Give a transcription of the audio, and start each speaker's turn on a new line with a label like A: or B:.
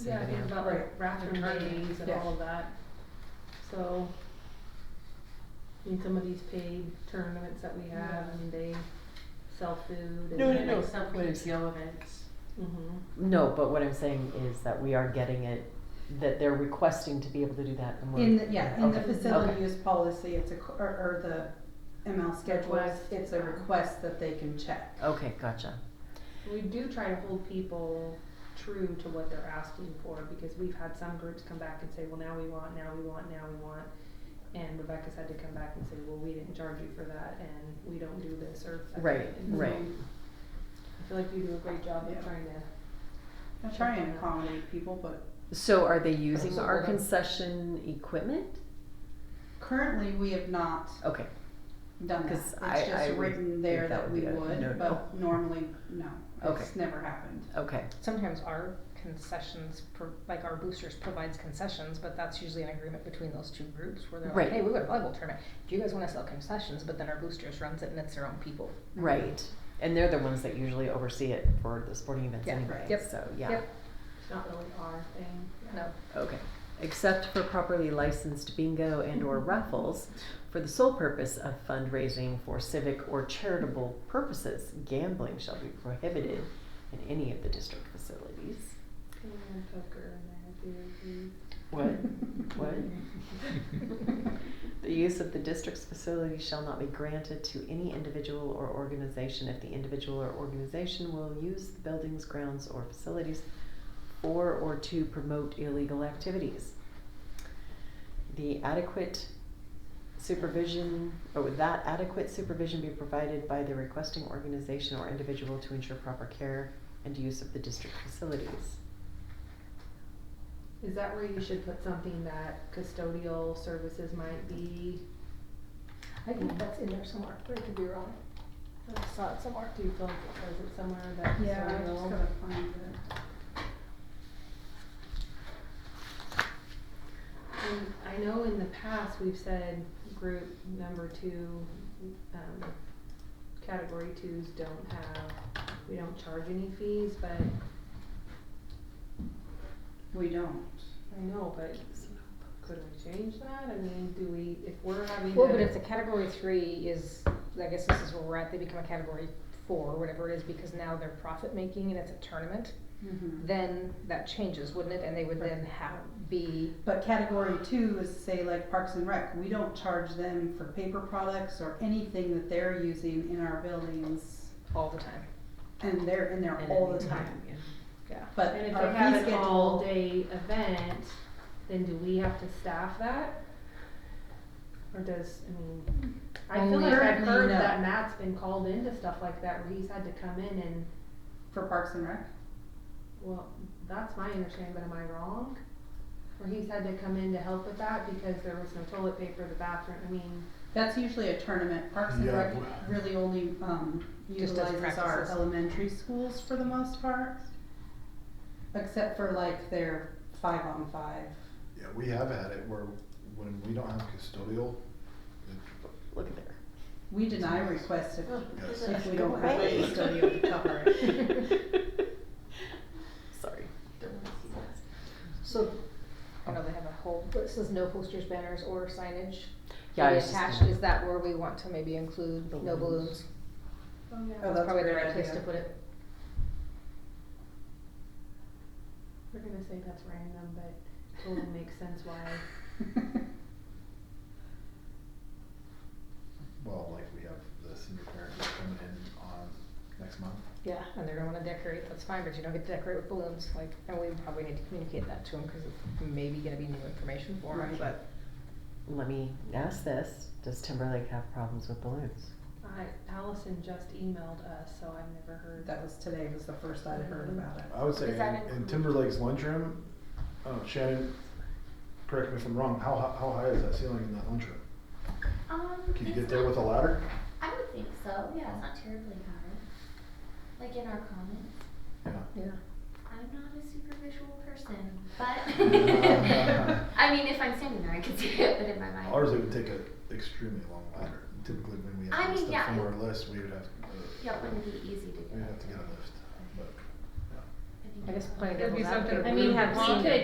A: Yeah, I think about like
B: Right.
A: bathroom
B: Returning.
A: days and
B: Yeah.
A: all of that, so. I mean, some of these paid tournaments that we have,
B: Yeah.
A: I mean, they sell food and.
B: No, no,
A: they-
B: no.
C: Some
B: What is-
C: PTO events.
A: Mhm.
D: No, but what I'm saying is that we are getting it, that they're requesting to be able to do that and we're.
B: In the, yeah, in the
D: Okay,
B: facility
D: okay.
B: use policy, it's a, co- or, or the ML schedules,
C: Request.
B: it's a request that they can check.
D: Okay, gotcha.
A: We do try to hold people true to what they're asking for, because we've had some groups come back and say, well, now we want, now we want, now we want. And Rebecca's had to come back and say, well, we didn't charge you for that, and we don't do this, or. that."
D: Right,
A: And so
D: right.
A: I feel like you do a great job
B: Yeah.
A: of trying to
B: I try and accommodate people, but
D: So are they using
A: So
D: our
A: what I'm-
D: concession equipment?
B: currently we have not
D: Okay,
B: done that.
D: 'Cause I-
B: It's
D: I
B: just
D: would
B: written there
D: think that
B: that
D: would
B: we
D: be a no-no.
B: would, but normally, no,
D: Okay.
B: it's never happened.
D: okay,
E: Sometimes our concessions, pro- like our boosters provides concessions, but that's usually an agreement between those two groups where they're
D: Right.
E: like, hey, we got a volleyball tournament. Do you guys want to sell concessions? But then our boosters runs it and it's their own people.
D: right. And they're the ones that usually oversee it for the sporting events
E: Yeah,
D: anyway,
E: yep,
D: so, yeah,
E: yep.
A: It's not really our thing.
E: No.
D: okay. Except for properly licensed bingo and or raffles for the sole purpose of fundraising for civic or charitable purposes, gambling shall be prohibited in any of the district facilities.
A: Can we have poker in there, too, please?
D: What? What? The use of the district's facility shall not be granted to any individual or organization if the individual or organization will use the buildings, grounds, or facilities for or to promote illegal activities. The adequate supervision, or would that adequate supervision be provided by the requesting organization or individual to ensure proper care and use of the district facilities.
A: Is that where you should put something that custodial services might be?
E: I think that's in there somewhere. I could be wrong. I saw it somewhere.
A: Do you feel like it says it somewhere that
B: Yeah, I just
A: custodial?
B: gotta find it.
A: And I know in the past, we've said group number two, um, category twos don't have, we don't charge any fees, but,
B: We don't.
A: I know, but could we change that? I mean, do we, if we're having
E: Well, but if
A: a,
E: the category three is, I guess this is where we're at, they become a category four, whatever it is, because now they're profit making and it's a tournament,
D: Mm-hmm.
B: Mhm.
E: then that changes, wouldn't it? And they would then have, be
B: But category two is say like Parks and Rec, we don't charge them for paper products or anything that they're using in our buildings.
E: all the time.
B: And they're in there
D: And
B: all
D: any
B: the time,
D: yeah.
E: Yeah.
B: but
A: and if
B: our
A: they
B: fee
A: have an
B: schedule-
A: all-day event, then do we have to staff that? Or does, I mean, I feel like I've
B: Currently,
A: heard
B: no.
A: that Matt's been called into stuff like that where he's had to come in and,
B: For Parks and Rec?
A: well, that's my understanding, but am I wrong? Where he's had to come in to help with that because there was no toilet paper, the bathroom, I mean,
B: That's usually a tournament. Parks and
F: Yeah,
B: Rec
F: w-
B: really only, um,
E: Just does
B: utilizes our
E: practices.
B: elementary schools for the most part. Except for like their five on five.
F: Yeah, we have had it where when we don't have custodial, it-
D: Look at there.
B: We deny requests if,
F: yes.
B: if we don't have
D: Right.
B: a custodial to cover it.
D: Sorry.
E: So, I know they have a whole, but it says no posters, banners, or signage.
D: Yeah, I
E: to be
D: was just
E: attached,
D: gonna-
E: is that where we want to maybe include
D: Balloons.
E: no balloons?
A: oh yeah.
B: Oh,
E: That's
B: that's a
E: probably the
B: great
E: right place to
B: idea.
E: put it.
A: We're gonna say that's random, but totally makes sense why,
F: Well, like we have the senior parent that's coming in on next month.
E: Yeah, and they're gonna wanna decorate, that's fine, but you don't get to decorate with balloons, like, and we probably need to communicate that to them, cause it's maybe gonna be new information for them,
B: Right.
E: but.
D: Let me ask this. Does Timberlake have problems with balloons?
A: I, Allison just emailed us, so I've never heard.
B: That was today was the first I'd heard about it.
F: I would say
C: Does that
F: in, in
C: include-
F: Timberlake's lunchroom, oh, Shannon, correct me if I'm wrong, how, hi- how high is that ceiling in that lunchroom?
G: Um,
F: Can you
G: it's
F: get there
G: not-
F: with a ladder?
G: I would think so. Yeah, it's not terribly hard. Like in our comments,
F: Yeah.
E: Yeah.
G: I'm not a super visual person, but I mean, if I'm standing there, I could see it, but in my mind,
F: Ours, it would take an extremely long ladder. Typically, when we
G: I
F: have
G: mean,
F: stuff
G: yeah,
F: from
G: it-
F: our list, we would have, uh,
G: yeah, it wouldn't be easy to do.
F: we'd have to get a lift, but, yeah.
G: I think
H: I guess playing
A: It'd be
H: devil's advocate.
A: something
E: I mean, we
A: Well,
E: could